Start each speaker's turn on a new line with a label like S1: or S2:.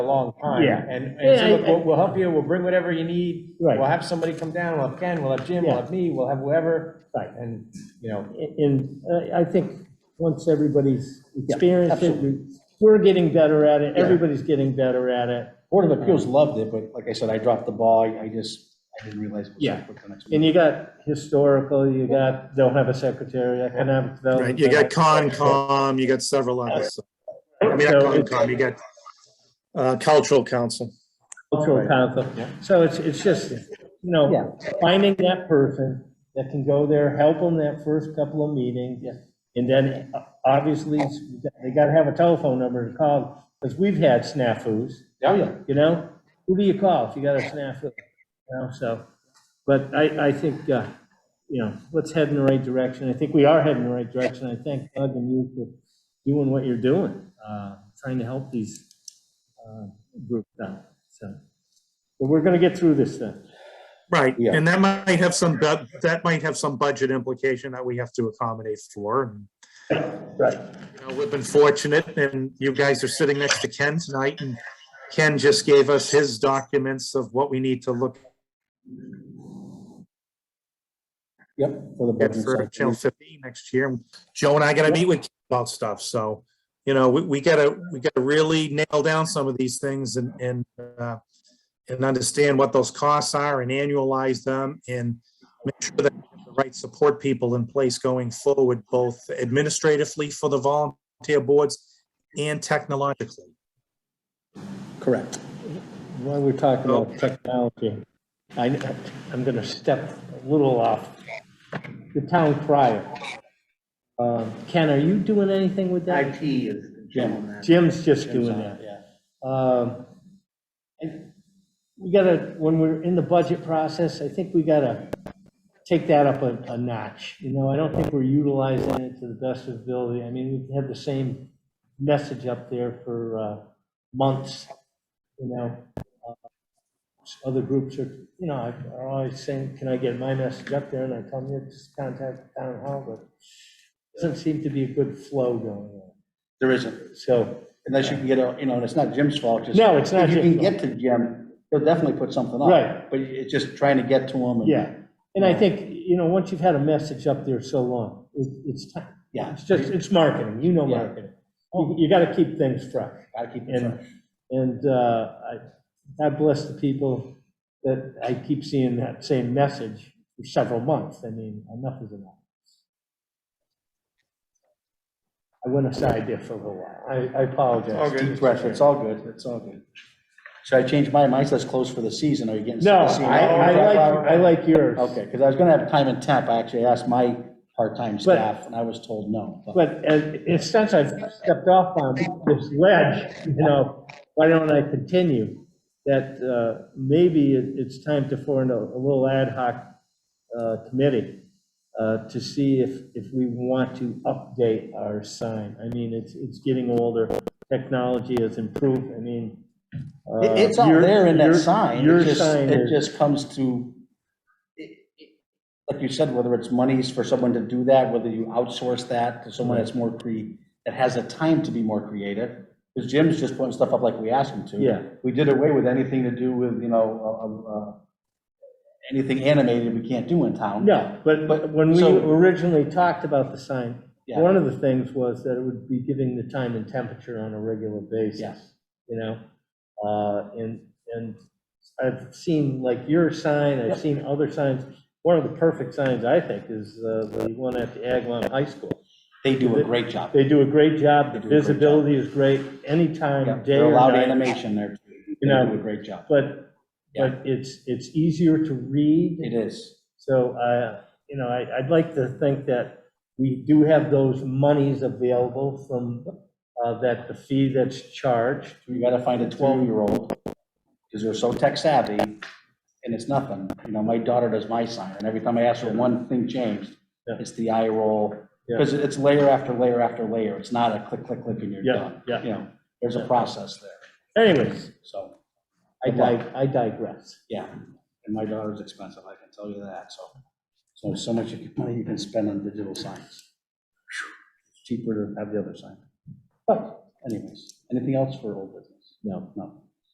S1: a long time.
S2: Yeah.
S1: And,
S3: Yeah,
S1: and so
S3: I-
S1: look, we'll, we'll help you, we'll bring whatever you need.
S2: Right.
S1: We'll have somebody come down, we'll have Ken, we'll have Jim, we'll
S2: Yeah.
S1: have me, we'll have whoever.
S2: Right.
S1: And, you know,
S2: And uh, I think once everybody's experienced it,
S1: absolutely.
S2: we- we're getting better at it,
S1: Yeah.
S2: everybody's getting better at it.
S1: Board of Appeals loved it, but like I said, I dropped the ball, I I just, I didn't realize. it was so
S2: Yeah.
S1: quick the next
S2: And
S1: week.
S2: you got historical, you got, don't have a secretary, economic
S4: Right,
S2: development.
S4: you got Concom, you got several others. I mean, not
S2: So it's
S4: Concom, you got uh, Cultural Council.
S2: Cultural council.
S1: Yeah.
S2: So it's, it's just, you know, finding that person that can go there, help them that first couple of meetings. And then uh, obviously, they gotta have a telephone number to call, because we've had snafus.
S1: Oh, yeah.
S2: you know? Who do you call if you got a snafu? You know, so, but I, I think, uh, you know, let's head in the right direction. I think we are heading in the right direction. I thank Doug and you for doing what you're doing, uh, trying to help these, uh, groups out, so. But we're gonna get through this then.
S4: Right,
S1: Yeah.
S4: and that might have some, bu- that might have some budget implication that we have to accommodate for. And,
S2: Right.
S4: you know, We've been fortunate, and you guys are sitting next to Ken tonight, and Ken just gave us his documents of what we need to look
S1: Yep. For the
S4: at
S1: budget
S4: for
S1: cycle.
S4: Channel 15 next year. Joe and I gotta meet with Ken about stuff, so, you know, we, we gotta, we gotta really nail down some of these things and, and, uh, and understand what those costs are and annualize them and make sure that we have the right support people in place going forward, both administratively for the volunteer boards and technologically.
S1: Correct.
S2: While we're talking about technology, I, I'm gonna step a little off. The town crier. Uh, Ken, are you doing anything with that?
S5: IT is Jim on that.
S2: Jim's just doing that. Um, And we gotta, when we're in the budget process, I think we gotta take that up a, a notch. You know, I don't think we're utilizing it to the best of ability. I mean, we've had the same message up there for, uh, months, you know. Uh, Other groups are, you know, are always saying, can I get my message up there? And I tell them, "Yeah, just contact town hall, but doesn't seem to be a good flow going on.
S5: There isn't,
S2: So,
S5: unless you can get a, you know, and it's not Jim's fault, just.
S2: No, it's not
S5: If you
S2: Jim's
S5: can get to Jim, he'll definitely put something up.
S2: Right.
S5: But it's just trying to get to him. and-
S2: Yeah, and I think, you know, once you've had a message up there so long, it- it's time,
S5: Yeah,
S2: it's just, it's marketing, you know
S5: Yeah.
S2: marketing. You- You gotta keep things fresh.
S5: gotta keep it
S2: And,
S5: fresh.
S2: and uh, I, God bless the people that I keep seeing that same message for several months. I mean, enough is enough. I went aside there for a little while. I I apologize.
S5: It's Keep fresh, it's all good, it's all good. Should I change mine? Mine says closed for the season, are you getting?
S2: No,
S5: sick of seeing
S2: I,
S5: that?
S2: I like, I like yours.
S5: Okay, because I was gonna have time and temp, I actually asked my part-time staff, and I was told no. but-
S2: But uh, in since I've stepped off on this ledge, you know, why don't I continue? That uh, maybe it- it's time to form a a little ad hoc uh, committee uh, to see if, if we want to update our sign. I mean, it's, it's getting older, technology has improved, I mean. uh,
S5: It- It's all
S2: your-
S5: there in
S2: your-
S5: that sign,
S2: Your
S5: it just,
S2: sign
S5: it
S2: is,
S5: just comes to, it- it- like you said, whether it's monies for someone to do that, whether you outsource that to someone that's more cre, that has the time to be more creative, because Jim's just putting stuff up like we asked him to.
S2: Yeah.
S5: We did away with anything to do with, you know, uh, uh, anything animated we can't do in town.
S2: no, but but when we
S5: so-
S2: originally talked about the sign,
S5: Yeah.
S2: One of the things was that it would be giving the time and temperature on a regular basis,
S5: Yes.
S2: you know? Uh, And, and I've seen like your sign, I've seen other signs. One of the perfect signs, I think, is uh, the one at the Agawam High School.
S5: They do a great job.
S2: They do a great job, the
S5: They do a great job.
S2: visibility is great, anytime,
S5: Yeah,
S2: day
S5: They're
S2: or
S5: allowed
S2: night.
S5: animation there. too. They
S2: know,
S5: do a great job.
S2: But, but it's, it's easier to read.
S5: It is.
S2: So, uh, you know, I- I'd like to think that we do have those monies available from uh, that, the fee that's charged.
S5: You gotta find a twelve-year-old, because they're so tech savvy, and it's nothing. You know, my daughter does my sign, and every time I ask her one thing changed,
S2: Yeah.
S5: it's the eye roll,
S2: Yeah.
S5: because it's layer after layer after layer. It's not a click, click, click, and you're
S2: Yeah,
S5: done.
S2: yeah.
S5: You know, there's a process there,
S2: Anyways,
S5: so,
S2: I dig- I digress.
S5: yeah. And my daughter's expensive, I can tell you that, so. So, so much you can- money you can spend on digital signs. Cheaper to have the other sign. But anyways, anything else for old business?
S2: No.
S5: No.